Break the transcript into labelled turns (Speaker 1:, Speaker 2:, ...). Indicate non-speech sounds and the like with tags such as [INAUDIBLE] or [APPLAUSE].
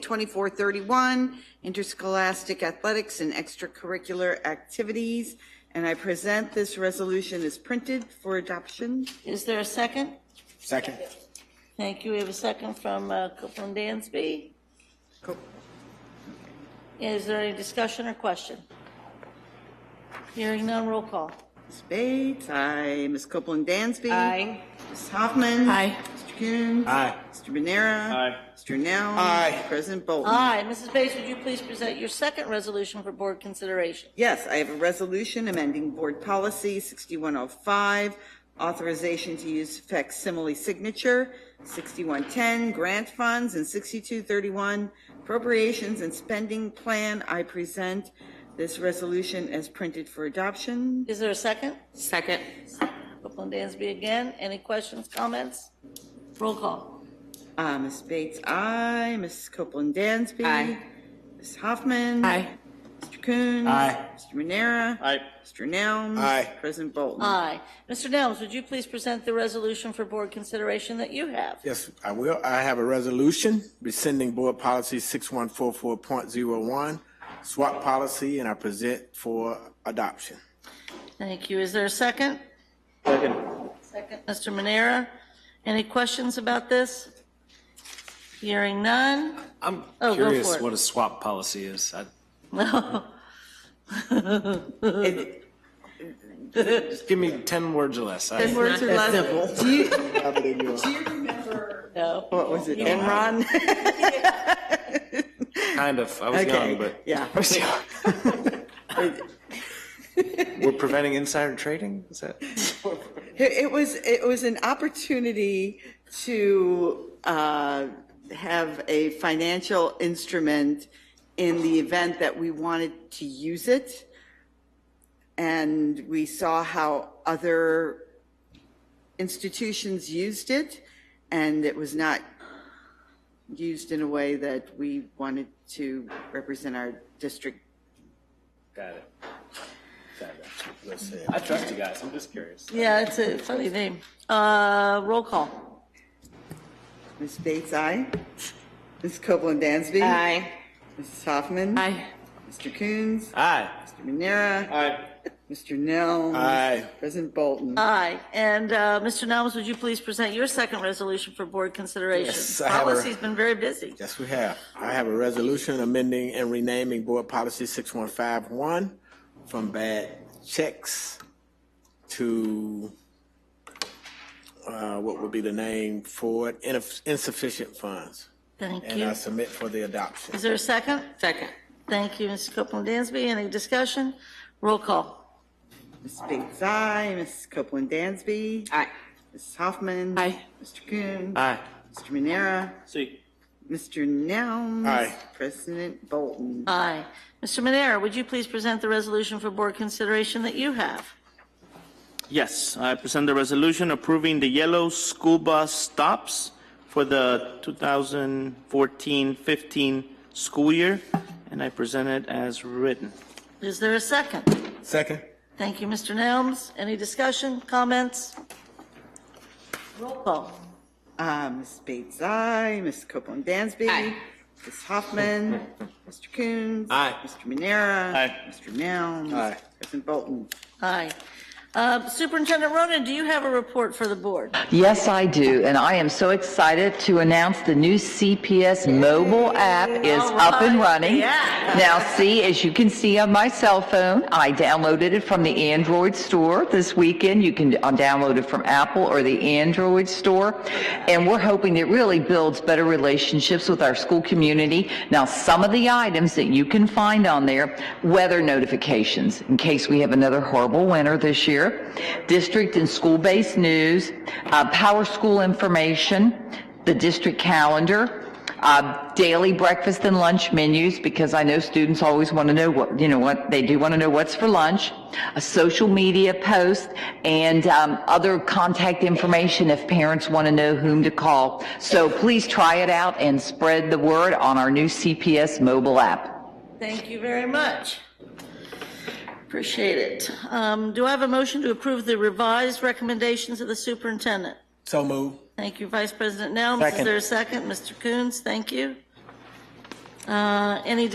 Speaker 1: 2431, interscholastic athletics and extracurricular activities. And I present this resolution as printed for adoption.
Speaker 2: Is there a second?
Speaker 3: Second.
Speaker 2: Thank you. We have a second from uh, Copeland Dansby.
Speaker 1: Co-
Speaker 2: Is there any discussion or question? Hearing none, roll call.
Speaker 1: Ms. Bates, aye. Ms. Copeland Dansby.
Speaker 2: Aye.
Speaker 1: Ms. Hoffman.
Speaker 2: Aye.
Speaker 1: Mr. Coon.
Speaker 3: Aye.
Speaker 1: Mr. Manera.
Speaker 3: Aye.
Speaker 1: Mr. Nell.
Speaker 3: Aye.
Speaker 1: President Bolton.
Speaker 2: Aye. Mrs. Bates, would you please present your second resolution for board consideration?
Speaker 1: Yes, I have a resolution amending Board Policy 6105, authorization to use facsimile signature, 6110, grant funds, and 6231, appropriations and spending plan. I present this resolution as printed for adoption.
Speaker 2: Is there a second?
Speaker 4: Second.
Speaker 2: Copeland Dansby again. Any questions, comments? Roll call.
Speaker 1: Uh, Ms. Bates, aye. Ms. Copeland Dansby.
Speaker 4: Aye.
Speaker 1: Ms. Hoffman. Mr. Coons.
Speaker 3: Aye.
Speaker 1: Mr. Manera.
Speaker 3: Aye.
Speaker 1: Mr. Nelms.
Speaker 3: Aye.
Speaker 1: President Bolton.
Speaker 2: Aye. Mr. Nelms, would you please present the resolution for board consideration that you have?
Speaker 3: Yes, I will. I have a resolution rescinding Board Policy 6144.01, SWAT policy, and I present for adoption.
Speaker 2: Thank you. Is there a second?
Speaker 3: Second.
Speaker 2: Second, Mr. Manera. Any questions about this? Hearing none? [LAUGHS]
Speaker 5: I'm
Speaker 2: Oh, go for
Speaker 5: curious
Speaker 2: it.
Speaker 5: what a swap policy is. I-
Speaker 2: No.
Speaker 5: Just give me 10 words or less. I-
Speaker 1: Words or less? Do you, do you remember?
Speaker 2: No.
Speaker 1: What was it, Enron?
Speaker 5: Kind of, I was
Speaker 1: Okay,
Speaker 5: young, but.
Speaker 1: [LAUGHS] yeah.
Speaker 5: I was [LAUGHS] young. [LAUGHS] We're preventing insider trading? Is that?
Speaker 1: It it was, it was an opportunity to uh, have a financial instrument in the event that we wanted to use it. And we saw how other institutions used it, and it was not used in a way that we wanted to represent our district.
Speaker 5: Got it. I trust you guys. I'm just curious.
Speaker 2: Yeah, it's a funny name. Uh, roll call.
Speaker 1: Ms. Bates, aye. Ms. Copeland Dansby.
Speaker 4: Aye.
Speaker 1: Mrs. Hoffman.
Speaker 4: Aye.
Speaker 1: Mr. Coons.
Speaker 5: Aye.
Speaker 1: Mr. Manera.
Speaker 3: Aye.
Speaker 1: Mr. Nell.
Speaker 3: Aye.
Speaker 1: President Bolton.
Speaker 2: Aye. And, uh, Mr. Nelms, would you please present your second resolution for board consideration?
Speaker 3: Yes, I have a-
Speaker 2: Policy's been very busy.
Speaker 3: Yes, we have. I have a resolution amending and renaming Board Policy 6151 from bad checks to uh, what would be the name for it? Inef- insufficient funds.
Speaker 2: Thank
Speaker 3: And I
Speaker 2: you.
Speaker 3: submit for the adoption.
Speaker 2: Is there a second?
Speaker 4: Second.
Speaker 2: Thank you, Mrs. Copeland Dansby. Any discussion? Roll call.
Speaker 1: Ms. Bates, aye. Mrs. Copeland Dansby.
Speaker 4: Aye.
Speaker 1: Mrs. Hoffman.
Speaker 4: Aye.
Speaker 1: Mr. Coons.
Speaker 5: Aye.
Speaker 1: Mr. Manera.
Speaker 5: See.
Speaker 1: Mr. Nell.
Speaker 3: Aye.
Speaker 1: President Bolton.
Speaker 2: Aye. Mr. Manera, would you please present the resolution for board consideration that you have?
Speaker 6: Yes, I present the resolution approving the yellow school bus stops for the 2014-15 school year, and I present it as written.
Speaker 2: Is there a second?
Speaker 3: Second.
Speaker 2: Thank you, Mr. Nelms. Any discussion, comments? Roll call.
Speaker 1: Uh, Ms. Bates, aye. Mrs. Copeland Dansby.
Speaker 4: Aye.
Speaker 1: Mrs. Hoffman.
Speaker 3: [LAUGHS]
Speaker 1: Mr. Coons.
Speaker 3: Aye.
Speaker 1: Mr. Manera.
Speaker 6: Aye.
Speaker 1: Mr. Nell.
Speaker 3: Aye.
Speaker 1: President Bolton.
Speaker 2: Aye. Uh, Superintendent Ronan, do you have a report for the board?
Speaker 7: Yes, I do, and I am so excited to announce the new CPS mobile app is up and running.
Speaker 2: Yeah.
Speaker 7: Now, see, as you can see on my cell phone, I downloaded it from the Android store this weekend. You can uh, download it from Apple or the Android store, and we're hoping it really builds better relationships with our school community. Now, some of the items that you can find on there, weather notifications, in case we have another horrible winter this year, district and school-based news, uh, power school information, the district calendar, uh, daily breakfast and lunch menus because I know students always want to know what, you know, what they do want to know what's for lunch, a social media post, and um, other contact information if parents want to know whom to call. So please try it out and spread the word on our new CPS mobile app.
Speaker 2: Thank you very much. Appreciate it. Um, Do I have a motion to approve the revised recommendations of the superintendent?
Speaker 3: So move.
Speaker 2: Thank you, Vice President Nelms. Is
Speaker 3: Second.
Speaker 2: there a second? Mr. Coons, thank you. Uh, Any